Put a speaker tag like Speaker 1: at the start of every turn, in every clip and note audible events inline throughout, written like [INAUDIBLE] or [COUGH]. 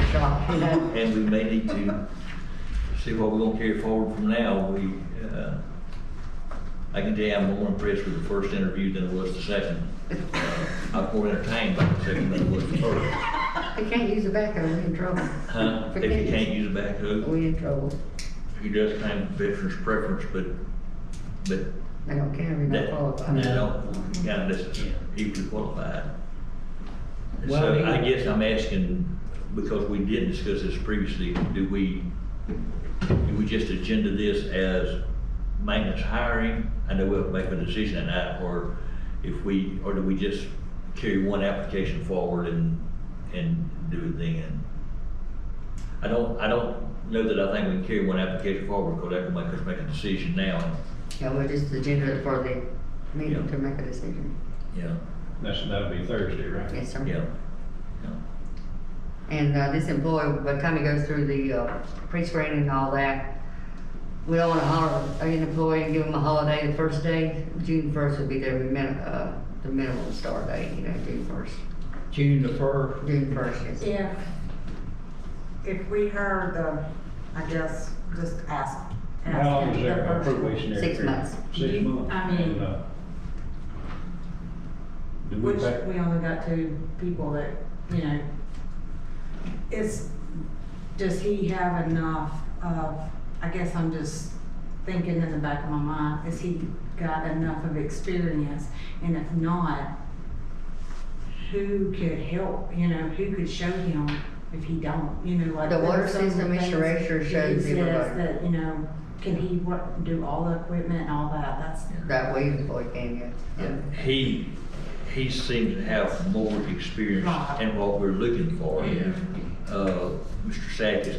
Speaker 1: workshop.
Speaker 2: And we may need to see what we're gonna carry forward from now. We, uh, I can tell you, I'm more impressed with the first interview than I was the second. Uh, I was more entertained by the second than I was the first.
Speaker 1: If you can't use a backhoe, we in trouble.
Speaker 2: Huh? If you can't use a backhoe,
Speaker 1: We in trouble.
Speaker 2: he does claim veteran's preference, but, but
Speaker 1: They don't care, we
Speaker 2: that,
Speaker 1: don't qualify.
Speaker 2: that don't, kind of, that's equally qualified.
Speaker 3: Well,
Speaker 2: So I
Speaker 3: he-
Speaker 2: guess I'm asking, because we did discuss this previously, do we, do we just agenda this as maintenance hiring? I know we'll make a decision on that, or if we, or do we just carry one application forward and, and do it then? I don't, I don't know that I think we can carry one application forward, because that will make us make a decision now,
Speaker 1: Yeah, we're just agenda for the meeting
Speaker 2: Yeah.
Speaker 1: to make a decision.
Speaker 2: you know,
Speaker 4: That's, that'll be Thursday, right?
Speaker 1: Yes, sir.
Speaker 2: yeah.
Speaker 1: And uh, this employee, by the time he goes through the uh, pre-screening and all that, we don't want to hire an employee and give him a holiday the first day. June first would be their min, uh, the minimum start date, you know, June first.
Speaker 3: June the first,
Speaker 1: June first, yes.
Speaker 5: If, if we heard the, I guess, just ask. ask
Speaker 4: How long
Speaker 5: him
Speaker 4: is
Speaker 5: the
Speaker 4: their
Speaker 5: first-
Speaker 4: probationary
Speaker 1: Six
Speaker 4: period?
Speaker 1: months.
Speaker 4: Six months?
Speaker 5: I mean-
Speaker 4: And, uh, Do we
Speaker 5: Which,
Speaker 4: pay,
Speaker 5: we only got two people that, you know, it's, does he have enough of, I guess I'm just thinking in the back of my mind, has he got enough of experience? And if not, who could help, you know, who could show him if he don't, you know, like.
Speaker 1: The water
Speaker 5: there are some
Speaker 1: system
Speaker 5: things
Speaker 1: insurer shows
Speaker 5: he says
Speaker 1: everybody.
Speaker 5: That, you know, can he what, do all the equipment and all that, that's,
Speaker 1: That way employee can get.
Speaker 2: He, he seems to have more experience
Speaker 5: Right.
Speaker 2: in what we're looking for.
Speaker 5: Yeah.
Speaker 2: Uh, Mr. Sack is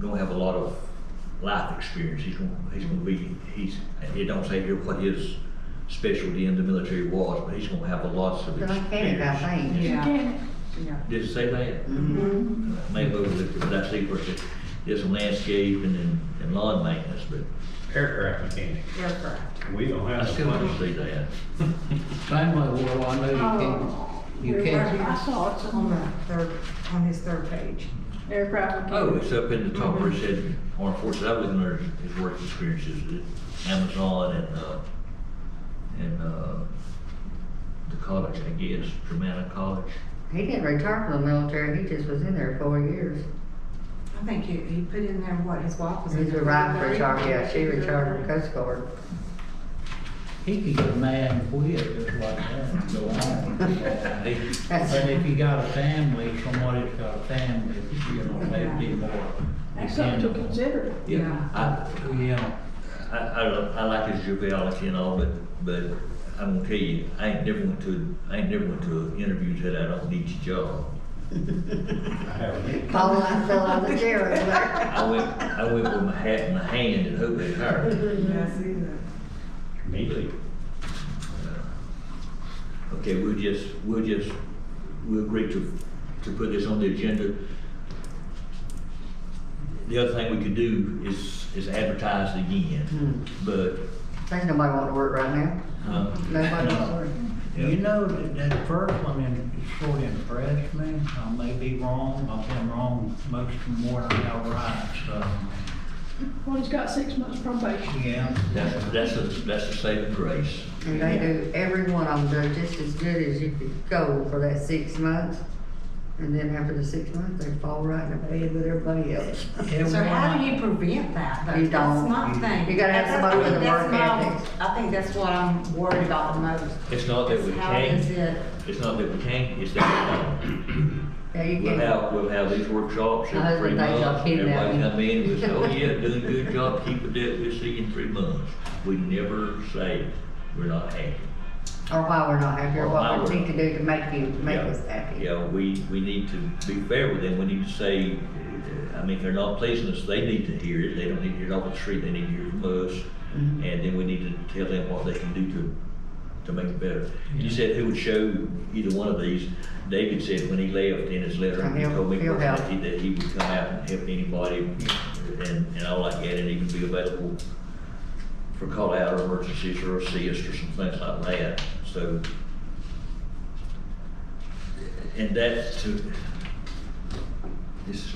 Speaker 2: gonna have a lot of life experience, he's gonna, he's gonna be, he's, it don't say here what his specialty in the military was, but he's gonna have a lots of
Speaker 1: But I can't, I
Speaker 2: experience.
Speaker 1: think.
Speaker 5: yeah, yeah.
Speaker 2: Did it say that?
Speaker 1: Mhm.
Speaker 2: Maybe overlooked it, but I see where it said, there's some landscape and, and- and lawn maintenance, but
Speaker 4: aircraft mechanic,
Speaker 5: Aircraft.
Speaker 4: we don't
Speaker 2: I
Speaker 4: have.
Speaker 2: still
Speaker 4: much.
Speaker 2: don't see that.
Speaker 3: same way, well, I know
Speaker 5: Oh.
Speaker 3: you can,
Speaker 6: Oh.
Speaker 3: you
Speaker 5: I
Speaker 3: can.
Speaker 5: saw it on the third, on his third page.
Speaker 6: Aircraft
Speaker 2: Oh,
Speaker 6: mechanic.
Speaker 2: it's up in the top where it said, armed forces, I was looking at his work experiences, at Amazon and, uh, and, uh, the college, I guess, Germanic College.
Speaker 1: He didn't retire from the military, he just was in there four years.
Speaker 5: I think he, he put in there what his wife was. in
Speaker 1: He's
Speaker 5: there.
Speaker 1: retired from retired, yeah, she retired from Coast Guard.
Speaker 3: He could get mad and quit just like that and go on.
Speaker 2: Hey,
Speaker 3: But
Speaker 1: That's,
Speaker 3: if you got a family, somebody's got a family, you know, they'd be more.
Speaker 6: That's something to consider.
Speaker 5: Yeah.
Speaker 2: I,
Speaker 3: Yeah,
Speaker 2: I, I, don't- I like his joviality and all, but, but I'm gonna tell you, I ain't never went to, I ain't never went to interviews that I don't need your job.
Speaker 4: I haven't.
Speaker 1: Paul, I fell out of the chair over there.
Speaker 2: I went, I went with my hat in my hand and hoped they hired me.
Speaker 5: Yeah, I see that.
Speaker 4: Me too.
Speaker 2: Okay, we'll just, we'll just, we'll agree to, to put this on the agenda. The other thing we could do is, is advertise it
Speaker 5: Hmm.
Speaker 2: again, but, um,
Speaker 1: There's nobody want to work right now.
Speaker 2: huh?
Speaker 1: Nobody wants to work.
Speaker 3: you know, that, that first one in- sort of impressed me, I may be wrong, I've been wrong most more than I was right, so,
Speaker 6: Well, he's got six months probation.
Speaker 3: yeah.
Speaker 2: That's, that's, a- that's a saving grace.
Speaker 1: And they do, every one of them do just as good as you could go for that six months. And then after the six months, they fall right in the bed with everybody else.
Speaker 5: So
Speaker 3: Everyone
Speaker 5: how
Speaker 3: I-
Speaker 5: do you prevent that though?
Speaker 1: You
Speaker 5: That's
Speaker 1: don't.
Speaker 5: my
Speaker 1: You-
Speaker 5: thing.
Speaker 1: you gotta have
Speaker 5: That's-
Speaker 1: somebody with a
Speaker 5: that's
Speaker 1: work
Speaker 5: my-
Speaker 1: ethic.
Speaker 5: I think that's what I'm worried about the most.
Speaker 2: It's not that we
Speaker 5: is How is
Speaker 2: can't,
Speaker 5: it,
Speaker 2: it's not that we can't, it's that we don't.
Speaker 1: Yeah, you
Speaker 2: We'll
Speaker 1: can,
Speaker 2: have, we'll have these workshops
Speaker 1: My
Speaker 2: in three
Speaker 1: husband thinks y'all
Speaker 2: months,
Speaker 1: kidding
Speaker 2: everybody
Speaker 1: about
Speaker 2: come in and we say, oh
Speaker 5: [LAUGHS]
Speaker 2: yeah, doing a good job, keep it up, we'll see you in three months. We never say we're not happy.
Speaker 1: or why we're not happy, or
Speaker 2: Why
Speaker 1: what we
Speaker 2: we're-
Speaker 1: need to do to make you, make
Speaker 2: Yeah.
Speaker 1: us happy.
Speaker 2: Yeah, we, we need to be fair with them, we need to say, uh, I mean, if they're not pleasing us, they need to hear it, they don't need to hear it off the street, they need to hear it from us. And
Speaker 1: Mhm.
Speaker 2: then we need to tell them what they can do to, to make it better. You said who would show either one of these, David said when he left in his letter, he
Speaker 1: He'll-
Speaker 2: told me
Speaker 1: he'll help.
Speaker 2: personally that he would come out and help anybody and, and all like that, and he would be available for call out or emergencies or assist or some things like that, so. And that's to, This is